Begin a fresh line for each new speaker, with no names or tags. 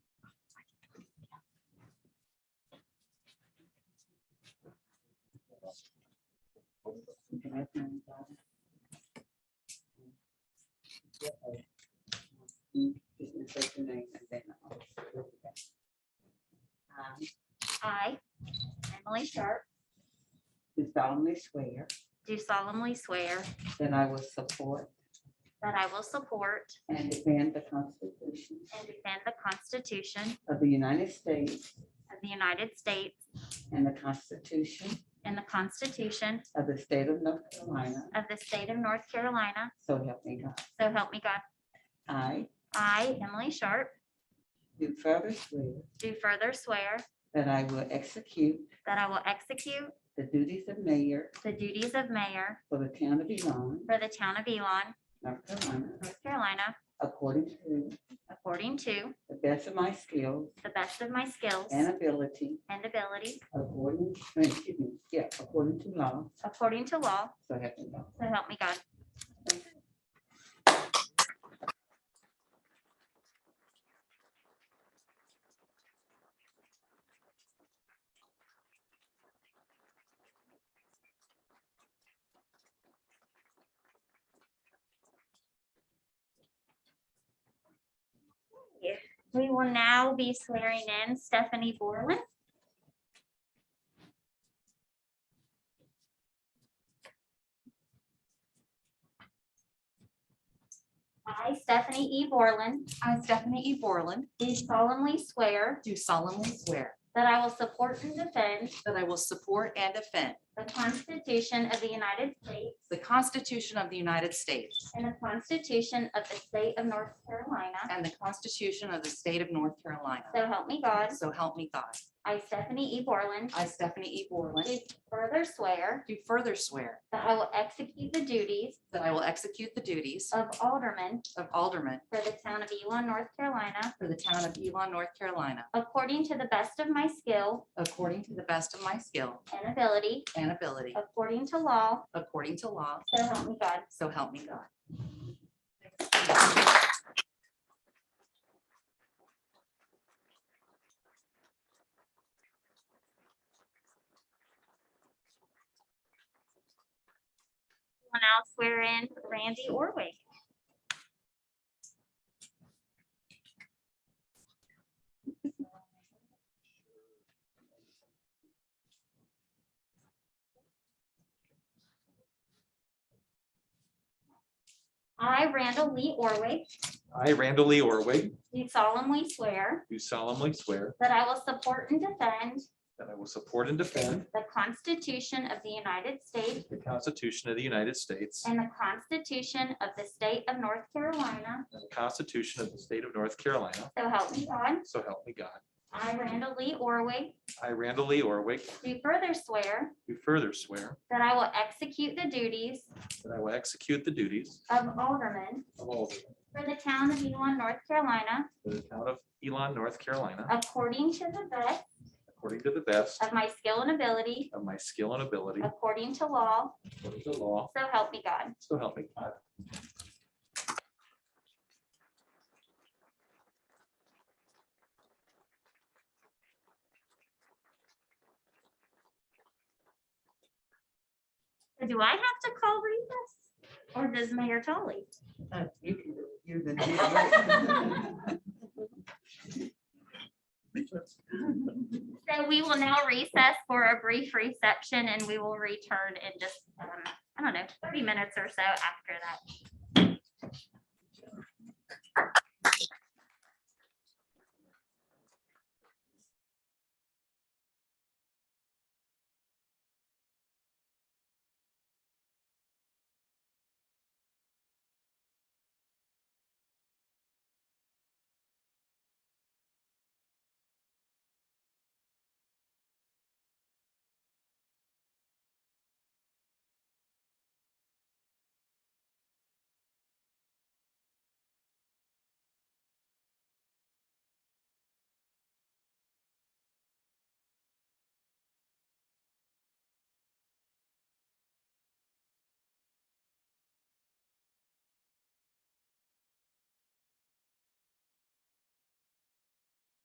I
I, Emily Sharp,
do solemnly swear
do solemnly swear
that I will support
that I will support
and defend the Constitution
and defend the Constitution
of the United States
of the United States
and the Constitution
and the Constitution
of the State of North Carolina,
of the State of North Carolina,
so help me God.
so help me God.
I
I, Emily Sharp,
do further swear
do further swear
that I will execute
that I will execute
the duties of mayor
the duties of mayor
for the town of Elon,
for the town of Elon,
North Carolina,
North Carolina,
according to
according to
the best of my skills
the best of my skills
and ability,
and ability,
according, uh, excuse me, yeah, according to law,
according to law,
so help me God.
so help me God. We will now be swearing in Stephanie Borland. I, Stephanie E. Borland,
I, Stephanie E. Borland,
do solemnly swear
do solemnly swear
that I will support and defend
that I will support and defend
the Constitution of the United States
the Constitution of the United States
and the Constitution of the State of North Carolina.
and the Constitution of the State of North Carolina.
So help me God.
So help me God.
I, Stephanie E. Borland,
I, Stephanie E.
do
Borland,
further swear
do further swear
that I will execute the duties
that I will execute the duties
of alderman
of Alderman
for the town of Elon, North Carolina,
for the town of Elon, North Carolina,
according to the best of my skill
according to the best of my skill
and ability,
and ability,
according to law.
according to law.
So help me God.
So help me God.
We'll now swear in Randy Orwig. I, Randall Lee Orwig,
I, Randall Lee Orwig,
do solemnly swear
do solemnly swear
that I will support and defend
that I will support and defend
the Constitution of the United States
the Constitution of the United States
and the Constitution of the State of North Carolina.
and the Constitution of the State of North Carolina,
So help me God.
so help me God.
I, Randall Lee Orwig,
I, Randall Lee Orwig,
do further swear
do further swear
that I will execute the duties
that I will execute the duties
of alderman
of Alderman
for the town of Elon, North Carolina,
for the town of Elon, North Carolina,
according to the best
according to the best
of my skill and ability,
of my skill and ability,
according to law,
according to law,
so help me God.
so help me God.
Do I have to call recess? Or does Mayor Tully?
Uh, You can do it. You're the-
So we will now recess for a brief reception and we will return in just, um, I don't know, thirty minutes or so after that.